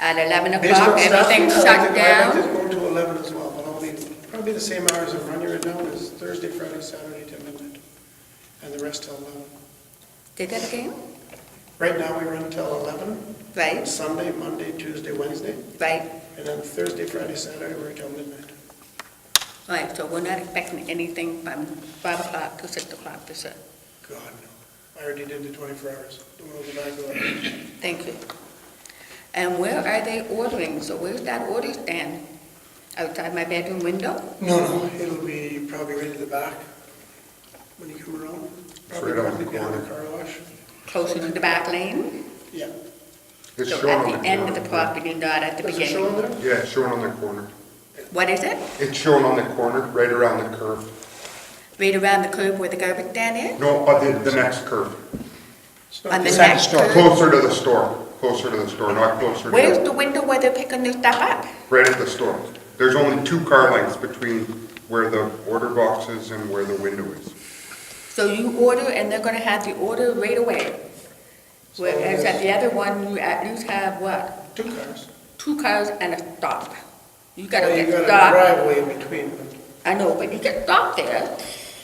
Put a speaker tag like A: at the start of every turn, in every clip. A: At 11
B: Based
A: o'clock,
B: on staff
A: everything's
B: report, I
A: shut
B: think I'd like
A: down.
B: to go to 11 as well, but only, probably the same hours that run right now is Thursday, Friday, Saturday to midnight, and the rest till 11.
A: Did that again?
B: Right now, we run till 11,
A: Right,
B: Sunday, Monday, Tuesday, Wednesday,
A: right,
B: and then Thursday, Friday, Saturday, we're till midnight.
A: right, so we're not expecting anything from 5 o'clock to 6 o'clock, is it?
B: God, no. I already did the 24 hours. The one over there, go ahead.
A: Thank you. And where are they ordering? So where's that order stand? Outside my bedroom window?
B: No, no, it'll be probably right at the back when you come around. Probably
C: Right on the
B: directly behind the
C: corner.
B: car wash.
A: Closer to the back lane?
B: Yeah.
C: It's
A: So
C: shown on
A: At the end of the
C: corner.
A: property, not at the
B: Does it show
A: beginning?
B: on there?
C: Yeah, it's shown on the corner.
A: What is it?
C: It's shown on the corner, right around the curve.
A: Right around the curb where the garbage stand
C: No, but the, the next curve.
B: It's
A: is?
B: not
A: On the
B: there.
A: next curb?
C: Closer to the store, closer to the store, not closer
A: Where's
C: to,
A: the window where they're picking their stuff up?
C: right at the store. There's only two car lengths between where the order box is and where the window is.
A: So you order and they're gonna have the order right away? Whereas at the other one, you at least have what?
B: Two cars.
A: Two cars and a stop. You gotta
B: Well, you
A: get
B: got a
A: stopped.
B: driveway in between them.
A: I know, but you get stopped there,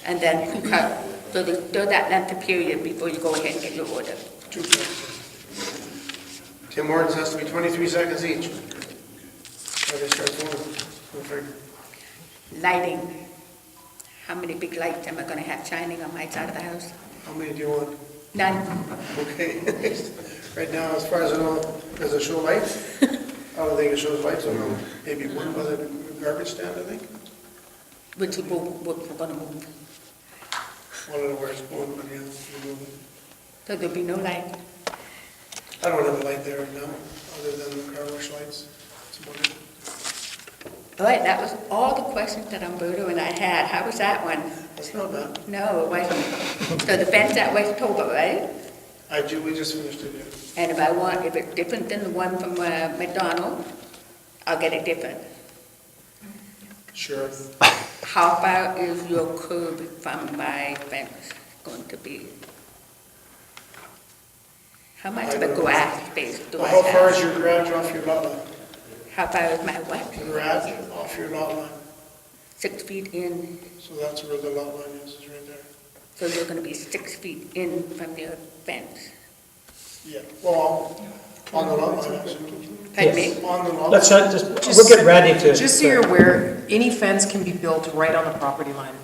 A: and then you cut, so there's still that length of period before you go ahead and get your order.
B: Two cars. Tim Hortons has to be 23 seconds each. Or they start going. Go figure.
A: Lighting, how many big lights am I gonna have shining on my side of the house?
B: How many do you want?
A: None.
B: Okay. Right now, as far as I know, does it show lights? I don't think it shows lights, or maybe one by the garbage stand, I think.
A: Which we're, we're gonna move,
B: One of the worst one, but yeah, we move it.
A: so there'll be no light.
B: I don't have a light there right now, other than the car wash lights. It's about it.
A: All right, that was all the questions that Umberto and I had, how was that one?
B: That's not bad.
A: No, it wasn't. So the fence at West Toba, right?
B: I do, we just finished it, yeah.
A: And if I want, if it's different than the one from uh, McDonald, I'll get it different.
B: Sure.
A: How far is your curb from my fence going to be? How much of a grass space do I
B: How far is
A: have?
B: your garage off your lot line?
A: How far is my what?
B: Garage off your lot line,
A: Six feet in,
B: so that's where the lot line is, is right there.
A: so you're gonna be six feet in from your fence.
B: Yeah, well, on the lot line, actually.
A: Pardon me?
B: On the lot.
D: Let's
B: line.
D: not, just, we'll get Randy to.
E: Just so you're aware, any fence can be built right on the property line.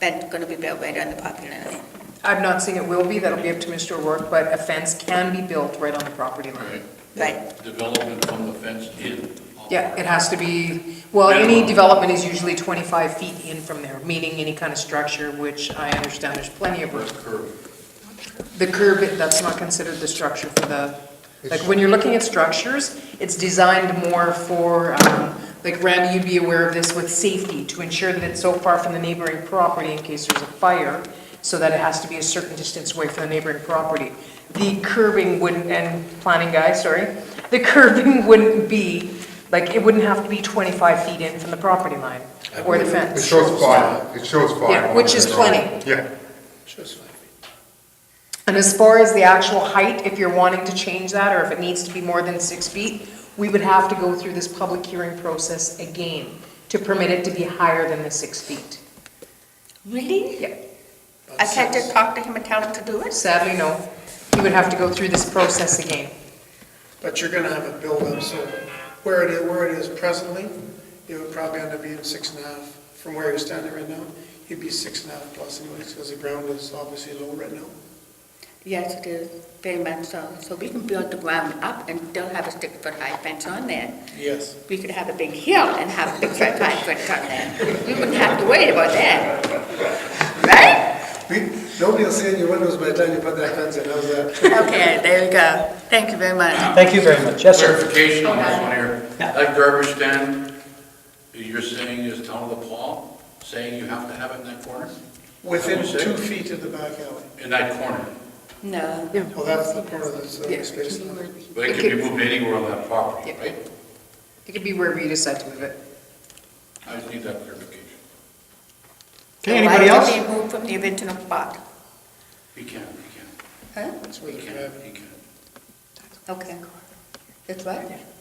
A: That's gonna be built right on the property line.
E: I'm not saying it will be, that'll be up to Mr. O'Rourke, but a fence can be built right on the property line.
A: Right.
F: Development from the fence in.
E: Yeah, it has to be, well, any
F: Minimum.
E: development is usually 25 feet in from there, meaning any kind of structure, which I understand there's plenty of room.
F: Curve.
E: The curb, that's not considered the structure for the, like, when you're looking at structures, it's designed more for, um, like, Randy, you'd be aware of this with safety, to ensure that it's so far from the neighboring property in case there's a fire, so that it has to be a certain distance away from the neighboring property. The curbing wouldn't, and planning guy, sorry, the curbing wouldn't be, like, it wouldn't have to be 25 feet in from the property line or the
C: It
E: fence.
C: shows five, it shows five.
E: Yeah, which is plenty.
C: Yeah.
B: Just five feet.
E: And as far as the actual height, if you're wanting to change that, or if it needs to be more than six feet, we would have to go through this public hearing process again to permit it to be higher than the six feet.
A: Really?
E: Yeah,
A: I can't just talk to him and tell him to do it?
E: sadly, no. You would have to go through this process again.
B: But you're gonna have a buildup, so where it is, where it is presently, it would probably end up being six and a half. From where you're standing right now, you'd be six and a half plus anyways, because the ground is obviously low right now.
A: Yes, it is, very much so. So we can build the ground up and still have a six-foot high fence on there.
B: Yes.
A: we could have a big hill and have big fat pine foot come in. We wouldn't have to worry about that. Right?
B: Nobody will see in your windows by the time you put that fence in, how's that?
A: Okay, there you go. Thank you very much.
D: Thank you very much, yes, sir.
F: Clarification on this one here.
D: Yeah.
F: That garbage stand, you're saying is down the wall, saying you have to have it in that corner?
B: Within two feet of the back alley.
F: In that corner.
A: No.
B: Well, that's the corner that's uh, space.
F: But it can be moved anywhere on that property,
E: Yeah.
F: right?
E: It could be wherever you decide to move it.
F: I just need that clarification.
D: Okay, anybody else?
A: Why did they move from the original spot?
F: He can, he
A: Huh?
B: That's
F: can,
B: where
F: he
B: the
F: can,
B: drive-
F: he can.
A: Okay. That's right.